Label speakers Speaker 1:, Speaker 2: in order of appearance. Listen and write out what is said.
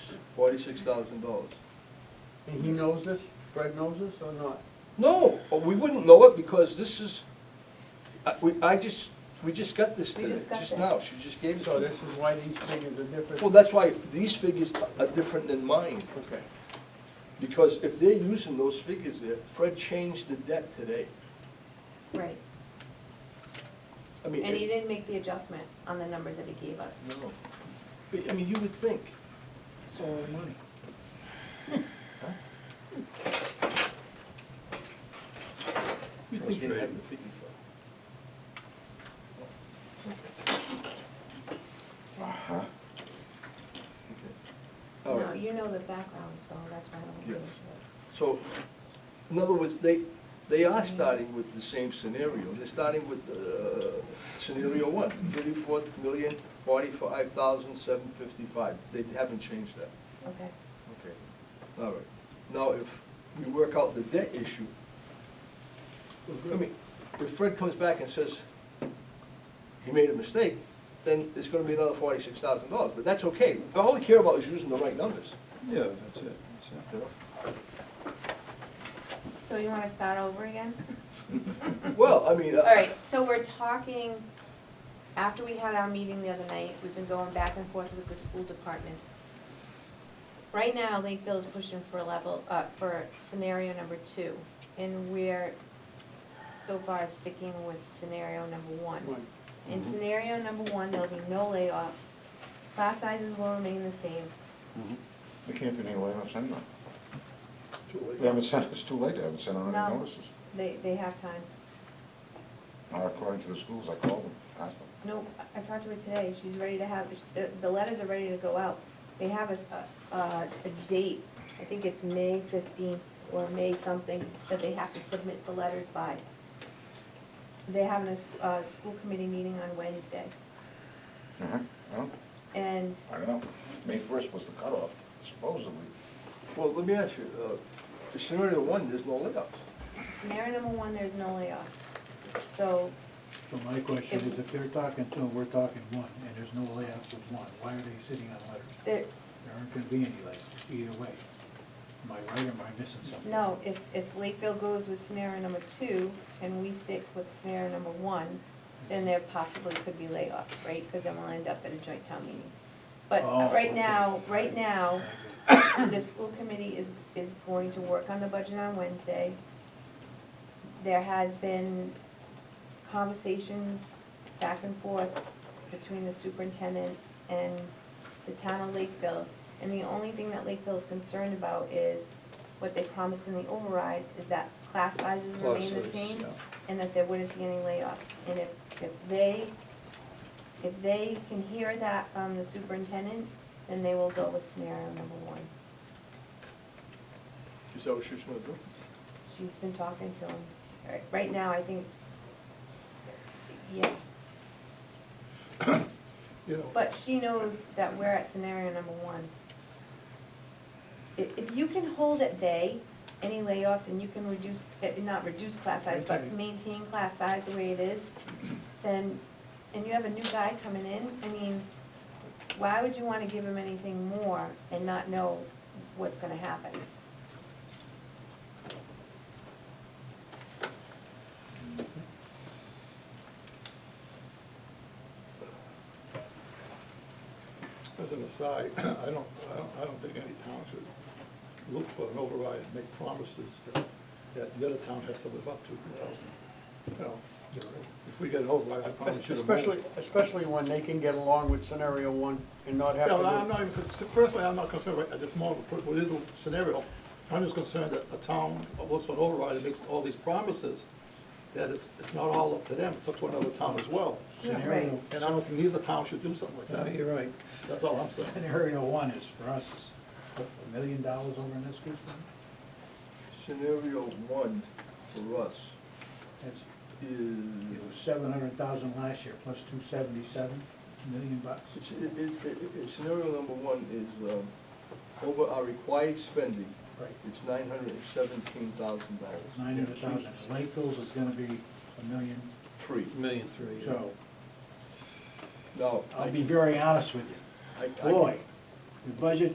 Speaker 1: forty-six thousand dollars.
Speaker 2: And he knows this, Fred knows this or not?
Speaker 1: No, uh, we wouldn't know it because this is, I, we, I just, we just got this
Speaker 3: We
Speaker 1: today,
Speaker 3: just got
Speaker 1: just
Speaker 3: this.
Speaker 1: now, she just gave us all
Speaker 2: So
Speaker 1: this.
Speaker 2: this is why these figures are different?
Speaker 1: Well, that's why these figures are different than mine,
Speaker 2: Okay.
Speaker 1: because if they're using those figures there, Fred changed the debt today.
Speaker 3: Right,
Speaker 1: I mean.
Speaker 3: and he
Speaker 1: it-
Speaker 3: didn't make the adjustment on the numbers that he gave us.
Speaker 1: No. But, I mean, you would think.
Speaker 4: It's all money.
Speaker 1: You'd think they'd have the figure.
Speaker 4: Uh-huh.
Speaker 1: for it. All
Speaker 3: No,
Speaker 1: right.
Speaker 3: you know the background, so that's why I don't get
Speaker 1: Yeah.
Speaker 3: into it.
Speaker 1: So, in other words, they, they are starting with the same scenario. They're starting with uh, scenario one, thirty-four million, forty-five thousand, seven fifty-five. They haven't changed that.
Speaker 3: Okay,
Speaker 1: Okay. All right. Now, if we work out the debt issue, I mean, if Fred comes back and says he made a mistake, then it's gonna be another forty-six thousand dollars, but that's okay. All we care about is using the right numbers,
Speaker 4: Yeah, that's it, that's
Speaker 1: you
Speaker 4: it.
Speaker 1: know?
Speaker 3: so you wanna start over again?
Speaker 1: Well, I mean. uh,
Speaker 3: All right, so we're talking, after we had our meeting the other night, we've been going back and forth with the school department. Right now, Lakeville is pushing for level, uh, for scenario number two, and we're so far sticking with scenario number one.
Speaker 2: One.
Speaker 3: In
Speaker 1: Mhm.
Speaker 3: scenario number one, there'll be no layoffs, class sizes will remain the same,
Speaker 5: We Mm-hmm. can't do any layoffs anyway.
Speaker 1: too late.
Speaker 5: They haven't sent, it's too late, they haven't sent out
Speaker 3: No.
Speaker 5: any notices.
Speaker 3: they, they have time.
Speaker 5: Not according to the schools, I called them, asked them.
Speaker 3: No, I I talked to her today, she's ready to have, the, the letters are ready to go out. They have a, s- a- a, a date, I think it's May fifteenth or May something, that they have to submit the letters by. They're having a, s- a school committee meeting on Wednesday,
Speaker 5: Uh-huh, well,
Speaker 3: and
Speaker 5: I don't know, May first was the cutoff supposedly.
Speaker 1: Well, let me ask you, uh, the scenario one, there's no layoffs.
Speaker 3: scenario number one, there's no layoffs. So,
Speaker 6: So my question is, if they're talking two, and we're talking one, and there's no layoffs with one, why are they sitting on letters?
Speaker 3: there,
Speaker 6: There aren't gonna be any layoffs, either way. Am I right or am I missing something?
Speaker 3: no, if, if Lakeville goes with scenario number two, and we stick with scenario number one, then there possibly could be layoffs, right? Because then we'll end up at a joint town meeting. But
Speaker 6: Oh,
Speaker 3: right
Speaker 6: okay.
Speaker 3: now, right now, the school committee is, is going to work on the budget on Wednesday. There has been conversations back and forth between the superintendent and the town of Lakeville. And the only thing that Lakeville is concerned about is what they promised in the override, is that class sizes remain the
Speaker 4: Classes,
Speaker 3: same
Speaker 4: yeah.
Speaker 3: and that there wouldn't be any layoffs. And if, if they, if they can hear that from the superintendent, then they will go with scenario number one.
Speaker 1: Is that what she's gonna do?
Speaker 3: She's been talking to him. Right- Right now, I think, yeah,
Speaker 1: You know,
Speaker 3: but she knows that we're at scenario number one. If, if you can hold at bay any layoffs and you can reduce, eh, not reduce class size, but
Speaker 6: Maintain.
Speaker 3: maintain class size the way it is, then, and you have a new guy coming in, I mean, why would you wanna give him anything more and not know what's gonna happen?
Speaker 7: As an aside, I don't, I don't, I don't think any town should look for an override and make promises that, that the other town has to live up to, you know. You know, if we get an override, I
Speaker 2: Oh,
Speaker 7: promise you the moon.
Speaker 2: Especially, especially when they can get along with scenario one and not have
Speaker 7: Yeah,
Speaker 2: to.
Speaker 7: well,
Speaker 2: do-
Speaker 7: I'm not even, cons- personally, I'm not concerned right at this moment, with with the scenario, I'm just concerned that a town looks for an override and makes all these promises, that it's, it's not all up to them, it's up to another town as well.
Speaker 6: Scenario,
Speaker 3: right.
Speaker 7: And I don't think neither town should do something like
Speaker 4: No,
Speaker 7: that,
Speaker 4: you're right.
Speaker 7: that's all I'm saying.
Speaker 6: scenario one is for us, is what, a million dollars over in this school fund?
Speaker 1: Scenario one for us
Speaker 6: That's,
Speaker 1: is,
Speaker 6: it was seven hundred thousand last year, plus two seventy-seven, million bucks.
Speaker 1: it's- it- it- it- it- scenario number one is um, over our required spending,
Speaker 6: Right.
Speaker 1: it's nine hundred and seventeen thousand dollars.
Speaker 6: Nine hundred thousand. Lakeville's is gonna be a million,
Speaker 1: Free.
Speaker 4: Million three. yeah.
Speaker 6: so
Speaker 1: Now, I
Speaker 6: I'll be very honest with you.
Speaker 1: I- I-
Speaker 6: Boy, the budget